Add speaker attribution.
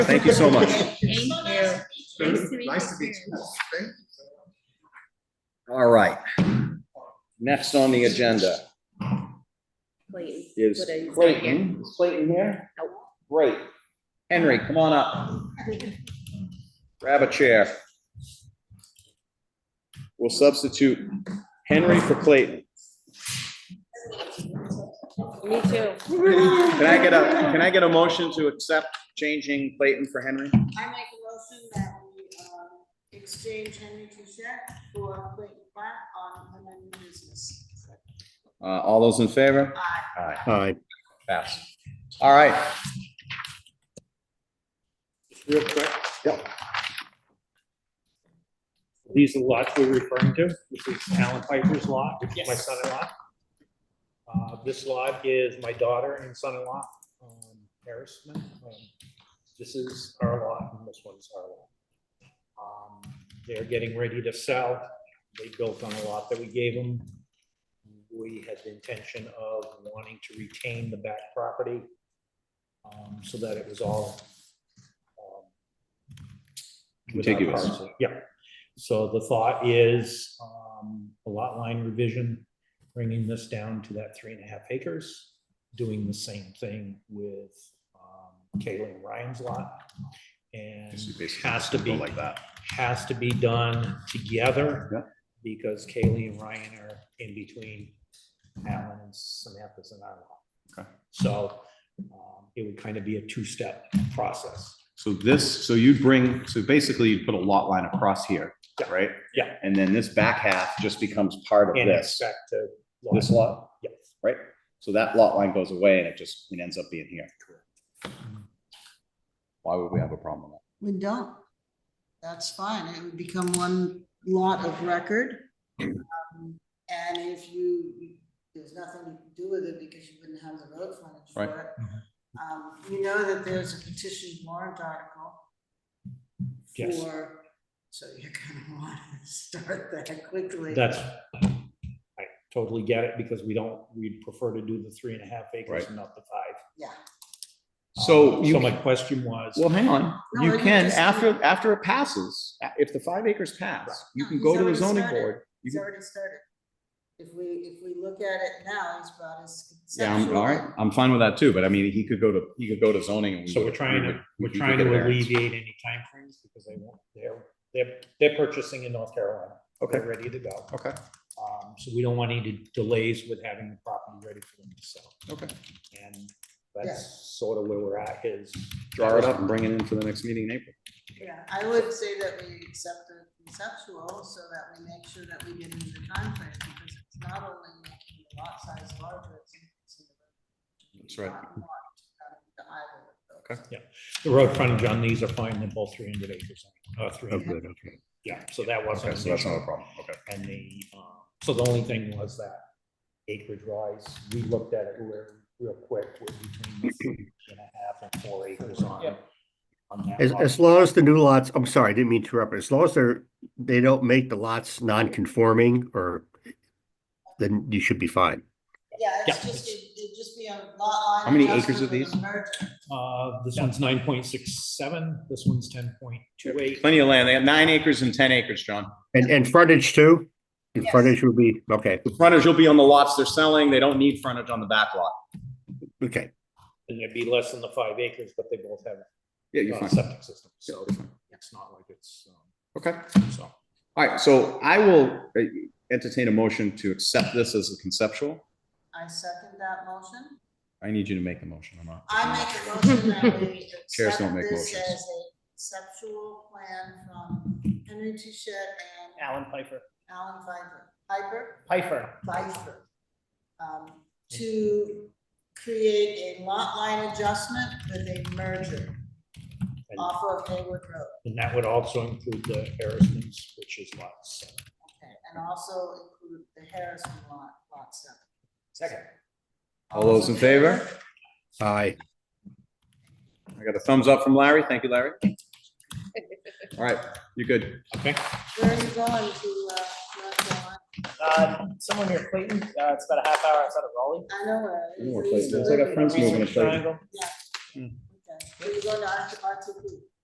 Speaker 1: Thank you so much.
Speaker 2: Thank you. Nice to meet
Speaker 3: Nice to meet
Speaker 2: too.
Speaker 3: you. Thank you.
Speaker 1: All right. Next on the agenda
Speaker 2: Please.
Speaker 1: is
Speaker 2: What are you-
Speaker 1: Clayton. Is Clayton here? Great. Henry, come on up. Grab a chair. We'll substitute Henry for Clayton.
Speaker 2: Me too.
Speaker 1: Can I get a, can I get a motion to accept changing Clayton for Henry?
Speaker 4: I make a motion that we, um, exchange Henry Touchette for Clayton Clark on unfinished business.
Speaker 1: Uh, all those in favor?
Speaker 4: Aye.
Speaker 1: Aye.
Speaker 5: Aye.
Speaker 1: Pass. All right.
Speaker 5: Real quick. Yep. These are the lots we're referring to, This is Alan Piper's lot, which is my son-in-law. Uh, this lot is my daughter and son-in-law, um, Harris Smith. Um, This is our lot and this one's our lot. Um, They're getting ready to sell. They built on a lot that we gave them. We had the intention of wanting to retain the back property, um, so that it was all um, without
Speaker 1: Contiguous.
Speaker 5: parcel. Yeah, so the thought is um, a lot line revision, bringing this down to that three and a half acres, doing the same thing with um, Kaylee and Ryan's lot. And has to be,
Speaker 1: that.
Speaker 5: has to be done together.
Speaker 1: Yeah.
Speaker 5: Because Kaylee and Ryan are in between Alan and Samantha's and our lot.
Speaker 1: Okay.
Speaker 5: So um, it would kind of be a two-step process.
Speaker 1: So this, so you'd bring, so basically you'd put a lot line across here,
Speaker 5: Yeah.
Speaker 1: right?
Speaker 5: Yeah.
Speaker 1: And then this back half just becomes part of
Speaker 5: And
Speaker 1: this,
Speaker 5: expect to.
Speaker 1: this lot,
Speaker 5: Yes.
Speaker 1: right? So that lot line goes away and it just, it ends up being here. Why would we have a problem with
Speaker 4: We don't. That's fine. It would become one lot of record. Um, And if you, you- there's nothing you can do with it because you wouldn't have the road frontage for
Speaker 1: Right.
Speaker 4: it. Um, you know that there's a petition warrant article.
Speaker 5: Yes.
Speaker 4: For, so you're gonna wanna start that quickly.
Speaker 5: That's, I totally get it because we don't, we'd prefer to do the three and a half acres
Speaker 1: Right.
Speaker 5: and not the five.
Speaker 4: Yeah.
Speaker 1: that? So
Speaker 5: Um,
Speaker 1: you,
Speaker 5: So my question was,
Speaker 1: well, hang on,
Speaker 4: No,
Speaker 1: you
Speaker 4: you
Speaker 1: can,
Speaker 4: just-
Speaker 1: after, after it passes, a- if the five acres pass, you
Speaker 4: No,
Speaker 1: can
Speaker 4: he's
Speaker 1: go to the
Speaker 4: already
Speaker 1: zoning
Speaker 4: started.
Speaker 1: board. You
Speaker 4: He's
Speaker 1: can-
Speaker 4: already started. If we, if we look at it now, he's about as.
Speaker 1: Yeah, I'm, all right, I'm fine with that too, but I mean, he could go to, he could go to zoning. and we
Speaker 5: so
Speaker 1: would-
Speaker 5: we're trying
Speaker 1: we
Speaker 5: to,
Speaker 1: would-
Speaker 5: we're
Speaker 1: we could
Speaker 5: trying
Speaker 1: get a
Speaker 5: to
Speaker 1: variance.
Speaker 5: alleviate any timeframes because they won't, they're, they're, they're purchasing in North Carolina. They're ready to go.
Speaker 1: Okay.
Speaker 5: Um, so we don't want any de- delays with having the property ready for them to sell.
Speaker 1: Okay.
Speaker 5: And that's sort of where we're at is.
Speaker 1: Draw it up and bring it in for the next meeting in April.
Speaker 4: Yeah, I would say that we accept the conceptual so that we make sure that we get into the timeframe because it's not only making the lot size larger, it's. increasing the-
Speaker 1: That's right.
Speaker 4: Lot more to either of those.
Speaker 5: The road frontage on these are fine, they're both three hundred acres, uh, three
Speaker 4: Oh,
Speaker 5: hundred,
Speaker 4: good,
Speaker 1: okay.
Speaker 5: yeah, so that wasn't.
Speaker 1: Okay,
Speaker 5: an
Speaker 1: so that's
Speaker 5: issue.
Speaker 1: not a problem, okay.
Speaker 5: And the, um, so the only thing was that acreage wise, we looked at it real, real quick, we're between the three and a half and four acres on. on that
Speaker 6: As,
Speaker 5: lot.
Speaker 6: as long as the new lots, I'm sorry, I didn't mean to interrupt, but as long as they're, they don't make the lots non-conforming or then you should be fine.
Speaker 4: Yeah, it's
Speaker 5: Yeah.
Speaker 4: just, it- it'd just be a lot line.
Speaker 1: How many acres
Speaker 4: adjustment
Speaker 1: are
Speaker 4: for the
Speaker 1: these?
Speaker 4: merger.
Speaker 5: Uh, this one's nine point six seven, this one's ten point two eight.
Speaker 1: Plenty of land. They have nine acres and ten acres, John.
Speaker 6: And, and frontage too? And
Speaker 4: Yes.
Speaker 6: frontage would be, okay,
Speaker 1: The frontage will be on the lots they're selling. They don't need frontage on the back lot.
Speaker 6: okay.
Speaker 5: And it'd be less than the five acres, but they both have
Speaker 1: Yeah,
Speaker 5: uh, septic systems, so
Speaker 1: you're fine.
Speaker 5: it's not like it's, um,
Speaker 1: Okay.
Speaker 5: so.
Speaker 1: All right, so I will uh, entertain a motion to accept this as a conceptual.
Speaker 4: I second that motion.
Speaker 1: I need you to make the motion. I'm not.
Speaker 4: I make a motion that we
Speaker 1: Chairs don't
Speaker 4: accept
Speaker 1: make
Speaker 4: this
Speaker 1: motions.
Speaker 4: as a conceptual plan from Henry Touchette and
Speaker 7: Alan Piper,
Speaker 4: Alan Piper, Piper,
Speaker 7: Piper,
Speaker 4: Pfeiffer, um, to create a lot line adjustment with a merger
Speaker 5: and-
Speaker 4: off of Hayward Road.
Speaker 5: And that would also include the Harrison's, which is lot seven.
Speaker 4: Okay, and also include the Harrison lot, lot seven.
Speaker 7: second.
Speaker 1: All those in favor?
Speaker 6: Aye.
Speaker 1: I got a thumbs up from Larry. Thank you, Larry. All right, you're good.
Speaker 5: Okay,
Speaker 4: Where are you going to, uh, North Carolina?
Speaker 7: Uh, someone near Clayton, uh, it's about a half hour outside of Raleigh.
Speaker 4: I know where. it is.
Speaker 1: More
Speaker 4: We used to
Speaker 1: places.
Speaker 4: live
Speaker 1: I got
Speaker 4: in
Speaker 1: friends moving
Speaker 4: Raleigh.
Speaker 1: to Clayton.
Speaker 7: Triangle.
Speaker 4: Yeah. Okay. We're going to R two P.